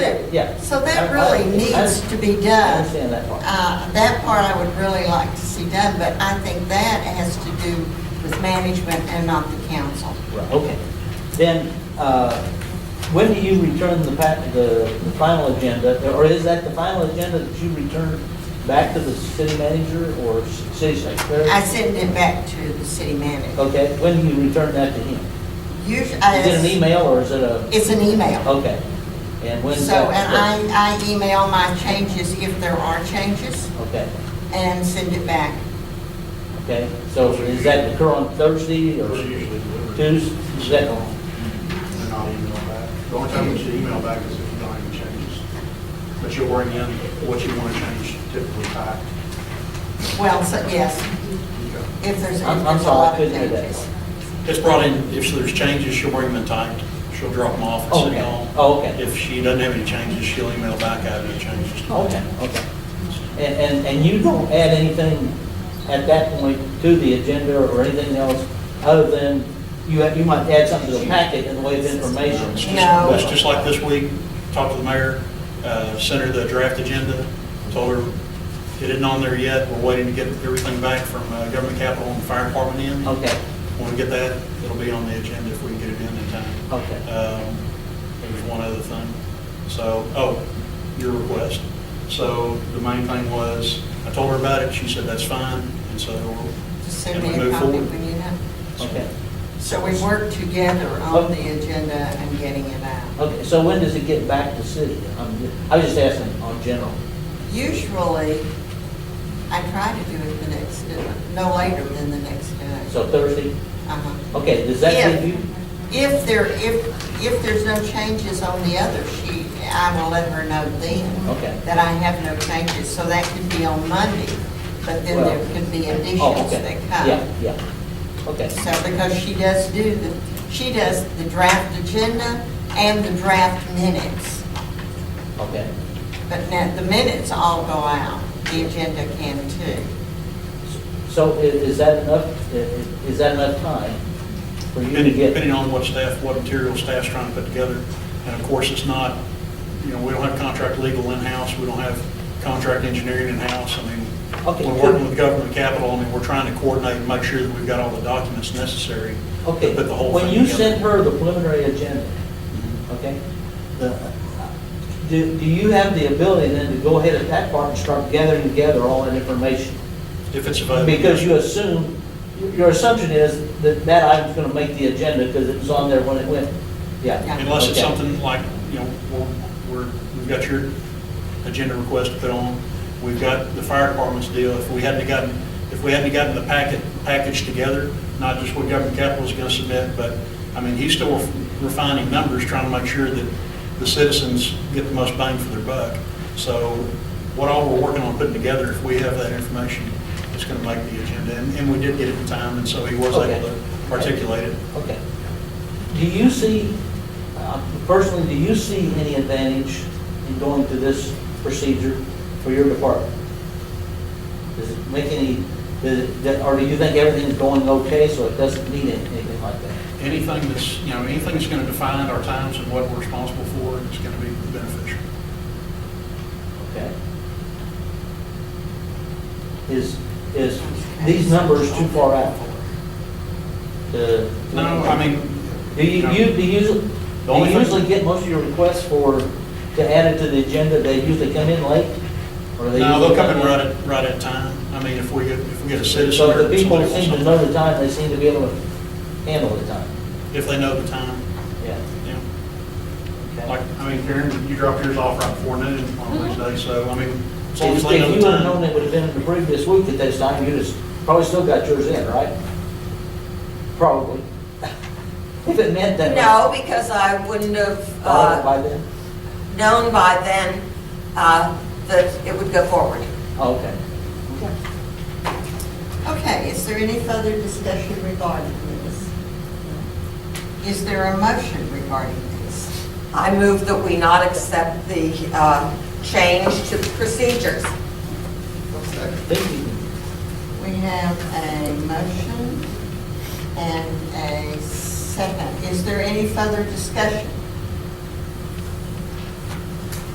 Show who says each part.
Speaker 1: yeah.
Speaker 2: So that
Speaker 1: I- I-
Speaker 2: really
Speaker 1: I-
Speaker 2: needs to be
Speaker 1: I
Speaker 2: done.
Speaker 1: understand that part.
Speaker 2: Uh, That part I would really like to see done, but I think that has to do with management and not the council.
Speaker 1: Right, Okay. Then, uh, when do you return the pa, the, the final agenda? Or is that the final agenda that you return back to the city manager or s- city secretary?
Speaker 2: I send it back to the city manager.
Speaker 1: Okay, when do you return that to him?
Speaker 2: Usually,
Speaker 1: Is it an email or is it a,
Speaker 2: It's an email.
Speaker 1: okay. And when's
Speaker 2: So,
Speaker 1: that?
Speaker 2: and I, I email my changes if there are changes
Speaker 1: Okay,
Speaker 2: and send it back.
Speaker 1: okay. So is that occur on Thursday or
Speaker 3: We're usually delivered.
Speaker 1: Tuesday? Is that on?
Speaker 3: They're not email back. The only time we should email back is if you don't have any changes. But you're worrying in what you want to change typically back.
Speaker 2: Well, so, yes, if there's, if
Speaker 1: I'm, I'm
Speaker 2: there's a
Speaker 1: sorry, I
Speaker 2: lot of
Speaker 1: couldn't hear that.
Speaker 2: changes.
Speaker 4: It's brought in, if there's changes, she'll bring them in typed. She'll drop them off at City
Speaker 1: Okay.
Speaker 4: Hall.
Speaker 1: Oh, okay.
Speaker 4: If she doesn't have any changes, she'll email back out any changes.
Speaker 1: Okay, okay. And, and, and you don't add anything at that point to the agenda or anything else other than you, you might add something to the packet in the way of information?
Speaker 4: It's just-
Speaker 2: No.
Speaker 4: That's just like this week, talked to the mayor, uh, sent her the draft agenda, told her it isn't on there yet. We're waiting to get everything back from uh, government capital and fire department in.
Speaker 1: Okay,
Speaker 4: When we get that, it'll be on the agenda if we can get it in in time.
Speaker 1: Okay.
Speaker 4: Um, There was one other thing. So, oh, your request. So the main thing was, I told her about it, she said that's fine, and so.
Speaker 2: Just
Speaker 4: and
Speaker 2: send
Speaker 4: we
Speaker 2: me a
Speaker 4: move
Speaker 2: copy
Speaker 4: forward.
Speaker 2: when you know.
Speaker 1: okay.
Speaker 2: So we work together on the agenda and getting it out.
Speaker 1: Okay, so when does it get back to city? I'm ju- I was just asking on general.
Speaker 2: Usually, I try to do it the next, day, no later than the next day.
Speaker 1: So Thursday?
Speaker 2: Uh-huh.
Speaker 1: Okay, does that
Speaker 2: If-
Speaker 1: leave you?
Speaker 2: If there, if, if there's no changes on the other sheet, I will let her know then.
Speaker 1: Okay.
Speaker 2: That I have no changes, so that could be on Monday, but then there
Speaker 1: Well,
Speaker 2: could be
Speaker 1: Oh,
Speaker 2: additions
Speaker 1: okay.
Speaker 2: that come.
Speaker 1: Yeah, yeah. Okay,
Speaker 2: So, because she does do the, she does the draft agenda and the draft minutes.
Speaker 1: okay.
Speaker 2: But now, the minutes all go out, the agenda can too.
Speaker 1: So i- is that enough, i- i- is that enough time for you to
Speaker 4: Depending,
Speaker 1: get?
Speaker 4: depending on what staff, what material staff's trying to put together. And of course, it's not, you know, we don't have contract legal in-house, we don't have contract engineering in-house. I mean,
Speaker 1: Okay.
Speaker 4: we're working with government capital, I mean, we're trying to coordinate and make sure that we've got all the documents necessary to
Speaker 1: Okay,
Speaker 4: put the whole
Speaker 1: when
Speaker 4: thing together. Mm-hmm.
Speaker 1: you send her the preliminary agenda, okay, the- do, do you have the ability then to go ahead at that part and start gathering together all that information?
Speaker 4: If it's available.
Speaker 1: Because you assume, your assumption is that that item's gonna make the agenda because it was on there when it went, yeah.
Speaker 2: Yeah.
Speaker 4: Unless it's
Speaker 1: okay.
Speaker 4: something like, you know, we're- we're, we've got your agenda request to put on, we've got the fire department's deal, if we hadn't gotten, if we hadn't gotten the packet, package together, not just what government capital's gonna submit, but, I mean, he's still refining numbers, trying to make sure that the citizens get the most bang for their buck. So what all we're working on putting together, if we have that information, it's gonna make the agenda, and, and we did get it in time, and so he was
Speaker 1: Okay.
Speaker 4: able to articulate it.
Speaker 1: Okay. Do you see, uh, personally, do you see any advantage in going to this procedure for your department? Does it make any, does it- that- or do you think everything's going okay, so it doesn't need any- anything like that?
Speaker 4: anything that's, you know, anything that's going to define our times and what we're responsible for is going to be beneficial.
Speaker 1: Okay? Is, is these numbers too far out? to-
Speaker 4: No, I mean.
Speaker 1: Do you,
Speaker 4: know,
Speaker 1: you, do you, usu-
Speaker 4: The
Speaker 1: do
Speaker 4: only
Speaker 1: you
Speaker 4: thing-
Speaker 1: usually get most of your requests for, to add it to the agenda, they usually come in late? Or they
Speaker 4: No,
Speaker 1: usually
Speaker 4: they'll come in
Speaker 1: in-
Speaker 4: right at, right at time. I mean, if we get, if we get a citizen.
Speaker 1: So
Speaker 4: or
Speaker 1: if the people
Speaker 4: somebody wants
Speaker 1: seem to
Speaker 4: something,
Speaker 1: know the time, they seem to be able to handle the time,
Speaker 4: If they know the time,
Speaker 1: yeah.
Speaker 4: you know.
Speaker 1: okay.
Speaker 4: Like, I mean, Karen, you dropped yours off right before noon on Wednesday, so, I mean, as long as
Speaker 1: If
Speaker 4: they
Speaker 1: if
Speaker 4: know
Speaker 1: you
Speaker 4: the
Speaker 1: would have known
Speaker 4: time.
Speaker 1: it would have been the previous week at this time, you'd have probably still got yours in, right? Probably. If it meant that.
Speaker 5: No, because I wouldn't have
Speaker 1: Thought it
Speaker 5: uh,
Speaker 1: by then?
Speaker 5: known by then uh, that it would go forward.
Speaker 1: Oh, Okay. Okay.
Speaker 2: Okay, is there any further discussion regarding this? Is there a motion regarding this?
Speaker 5: I move that we not accept the uh, change to procedures.
Speaker 1: Think you can-
Speaker 2: We have a motion and a second. Is there any further discussion?